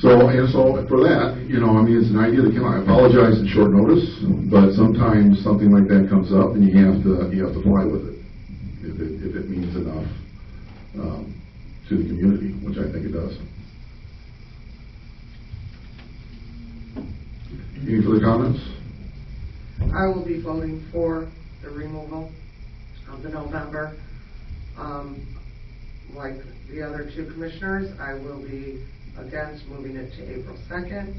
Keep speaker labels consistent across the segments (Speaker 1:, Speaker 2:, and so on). Speaker 1: So, and so for that, you know, I mean, it's an idea that came out. I apologize in short notice, but sometimes something like that comes up and you have to, you have to fly with it. If it, if it means enough, um, to the community, which I think it does. Any further comments?
Speaker 2: I will be voting for the removal of the November. Um, Like the other two commissioners, I will be against moving it to April 2nd,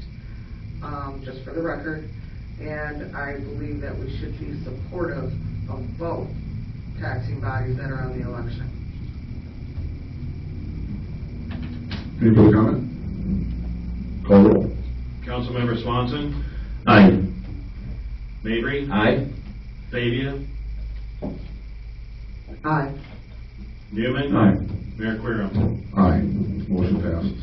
Speaker 2: um, just for the record. And I believe that we should be supportive of both taxing bodies that are on the election.
Speaker 1: Any further comment? Call roll.
Speaker 3: Councilmember Swanson,
Speaker 4: Aye.
Speaker 3: Mavry,
Speaker 4: Aye.
Speaker 3: Fabia,
Speaker 2: Aye.
Speaker 3: Newman. Mayor Querem.
Speaker 1: Aye. Motion passes.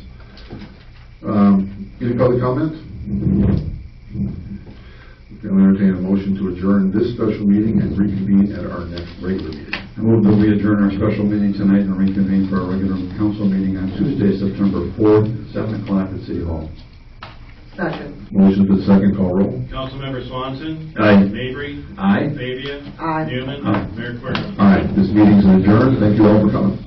Speaker 1: Um, Any public comment? Okay, I'll entertain a motion to adjourn this special meeting and reconvene at our next regular meeting.
Speaker 4: I move that we adjourn our special meeting tonight and reconvene for our regular council meeting on Tuesday, September 4th, 7 o'clock at City Hall.
Speaker 2: Second.
Speaker 1: Motion for the second call roll.
Speaker 3: Councilmember Swanson,
Speaker 4: Aye.
Speaker 3: Mavry,
Speaker 4: Aye.
Speaker 3: Fabia,
Speaker 2: Aye.
Speaker 3: Newman.
Speaker 4: Aye.
Speaker 3: Mayor Querem.
Speaker 1: All right, this meeting's adjourned. Thank you all for coming.